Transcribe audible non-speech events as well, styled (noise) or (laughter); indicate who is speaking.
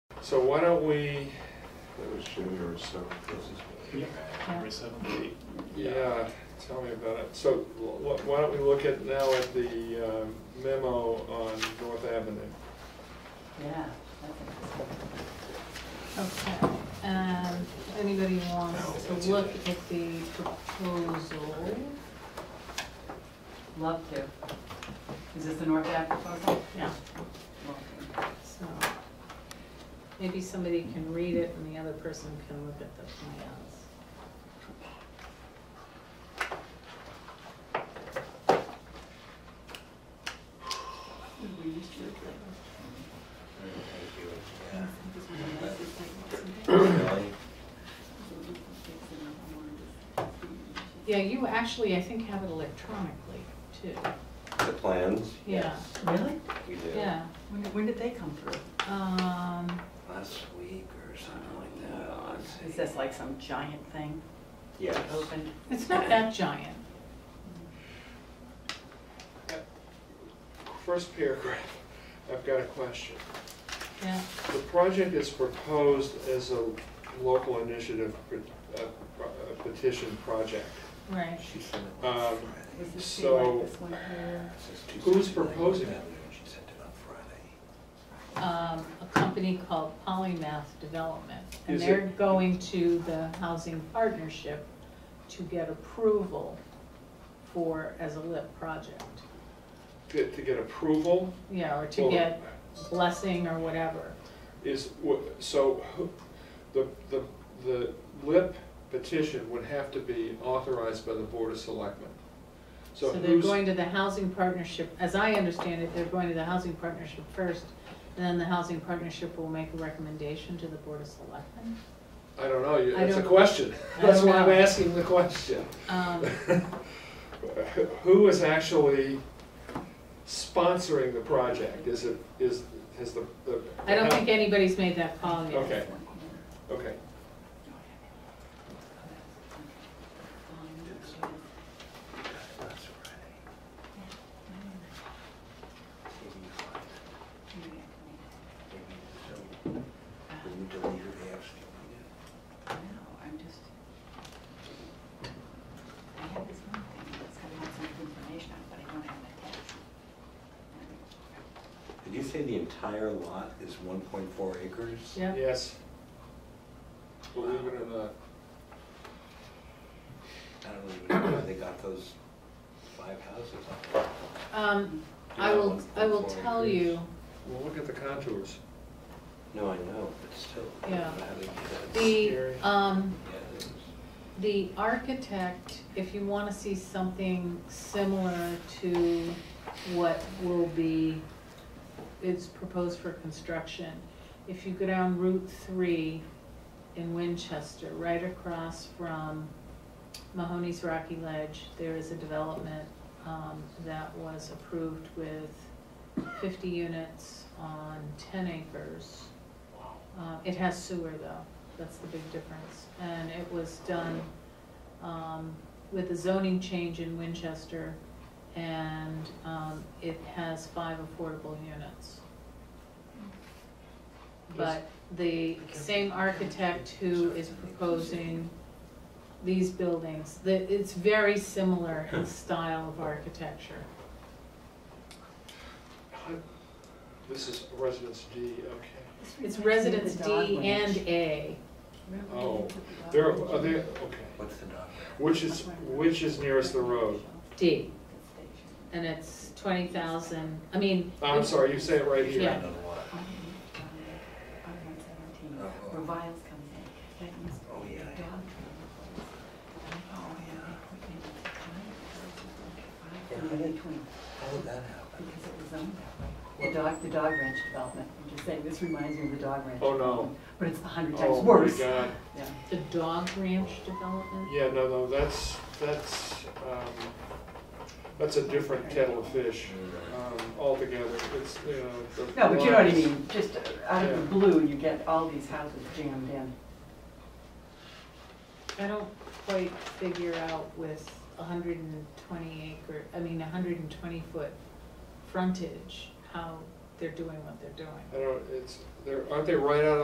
Speaker 1: So why don't we, that was January
Speaker 2: This
Speaker 1: seventh.
Speaker 2: is
Speaker 3: Yeah.
Speaker 2: January 7th, eight.
Speaker 1: Yeah, tell me about it. So wh- why don't we look at now at the uh, memo on North Avenue?
Speaker 4: Yeah. that's interesting.
Speaker 3: Okay, um, if anybody wants to look at the proposal,
Speaker 4: Love to. Is this the North Ave proposal?
Speaker 3: yeah,
Speaker 4: Love to.
Speaker 3: so. Maybe somebody can read it and the other person can look at the plans. Yeah, you actually, I think, have it electronically too.
Speaker 5: The plans,
Speaker 3: Yeah,
Speaker 4: Really?
Speaker 5: we did.
Speaker 3: yeah.
Speaker 4: When, when did they come through?
Speaker 3: Um,
Speaker 5: Last week or something like that, let's see.
Speaker 4: Is this like some giant thing
Speaker 5: Yes.
Speaker 4: open?
Speaker 3: it's not that giant.
Speaker 1: First paragraph, I've got a question.
Speaker 3: Yeah,
Speaker 1: The project is proposed as a local initiative pet- uh, pro- uh, petition project.
Speaker 3: right.
Speaker 2: She sent it
Speaker 1: Um,
Speaker 2: on Friday.
Speaker 4: Does this be
Speaker 1: So-
Speaker 4: like this one here?
Speaker 2: It says Tuesday
Speaker 1: who's
Speaker 2: night,
Speaker 1: proposing it?
Speaker 2: and She sent it on Friday.
Speaker 3: um, a company called Polymath Development. And
Speaker 1: Is
Speaker 3: they're
Speaker 1: it-
Speaker 3: going to the housing partnership to get approval for, as a LIP project.
Speaker 1: To to get approval
Speaker 3: Yeah, or to
Speaker 1: Well-
Speaker 3: get blessing or whatever.
Speaker 1: is, wha- so who- the, the, the LIP petition would have to be authorized by the Board of Selectmen. So
Speaker 3: So they're
Speaker 1: who's,
Speaker 3: going to the housing partnership, as I understand it, they're going to the housing partnership first, and then the housing partnership will make a recommendation to the Board of Selectmen.
Speaker 1: I don't know, you-
Speaker 3: I
Speaker 1: that's a
Speaker 3: don't-
Speaker 1: question. (laughs)
Speaker 3: I
Speaker 1: That's
Speaker 3: don't
Speaker 1: why I'm
Speaker 3: know.
Speaker 1: asking the question.
Speaker 3: Um,
Speaker 1: (laughs) Who is actually sponsoring the project? Is it, is, has the? the-
Speaker 3: I don't think anybody's made that call yet.
Speaker 1: Okay, okay.
Speaker 2: Last Friday. Maybe you find it. Maybe you don't. When you delete her, they ask you.
Speaker 4: No, I'm just. I have this one thing that's got lots of information on it, but I don't have an attachment.
Speaker 5: Did you say the entire lot is one point four acres?
Speaker 3: Yeah.
Speaker 1: Yes. Believe it or not.
Speaker 5: I don't even know why they got those five houses on there.
Speaker 3: Um, I will, I will tell you.
Speaker 1: Well, look at the contours.
Speaker 5: No, I know, but still. I don't
Speaker 3: Yeah.
Speaker 5: know how they did that.
Speaker 3: The,
Speaker 1: Scary.
Speaker 3: um,
Speaker 5: Yeah, it is.
Speaker 3: the architect, if you wanna see something similar to what will be, is proposed for construction, if you go down Route three in Winchester, right across from Mahoney's Rocky Ledge, there is a development, um, that was approved with fifty units on ten acres. Uh, It has sewer though, that's the big difference. And it was done um, with a zoning change in Winchester and um, it has five affordable units. But the same architect who is proposing these buildings, that it's very similar in style of architecture.
Speaker 1: This is Residence D, okay.
Speaker 3: It's Residence D and A.
Speaker 1: Oh, there, are there, okay.
Speaker 5: What's the dog?
Speaker 1: Which is, which is nearest the road?
Speaker 3: D, and it's twenty thousand, I mean.
Speaker 1: I'm sorry, you say it right here.
Speaker 3: Yeah.
Speaker 5: Another lot. Oh.
Speaker 4: Reviles comes in, that used
Speaker 5: Oh,
Speaker 4: to be a
Speaker 5: yeah,
Speaker 4: dog
Speaker 5: yeah.
Speaker 4: trailer.
Speaker 5: Oh, yeah.
Speaker 4: Five feet in between.
Speaker 5: How did that happen?
Speaker 4: Because it was owned that way. The dog, the dog ranch development, I'm just saying, this reminds me of the dog ranch.
Speaker 1: Oh, no.
Speaker 4: development, But it's a hundred times
Speaker 1: Oh, my
Speaker 4: worse.
Speaker 1: God.
Speaker 4: Yeah.
Speaker 3: The dog ranch development?
Speaker 1: Yeah, no, no, that's, that's, um, that's a different kettle of fish, um, altogether, it's, you know, the.
Speaker 4: No, but you know what I
Speaker 1: lines-
Speaker 4: mean, just out of the
Speaker 1: Yeah.
Speaker 4: blue, you get all these houses jammed in.
Speaker 3: I don't quite figure out with a hundred and twenty acre, I mean, a hundred and twenty foot frontage, how they're doing what they're doing.
Speaker 1: I don't, it's, they're, aren't they right out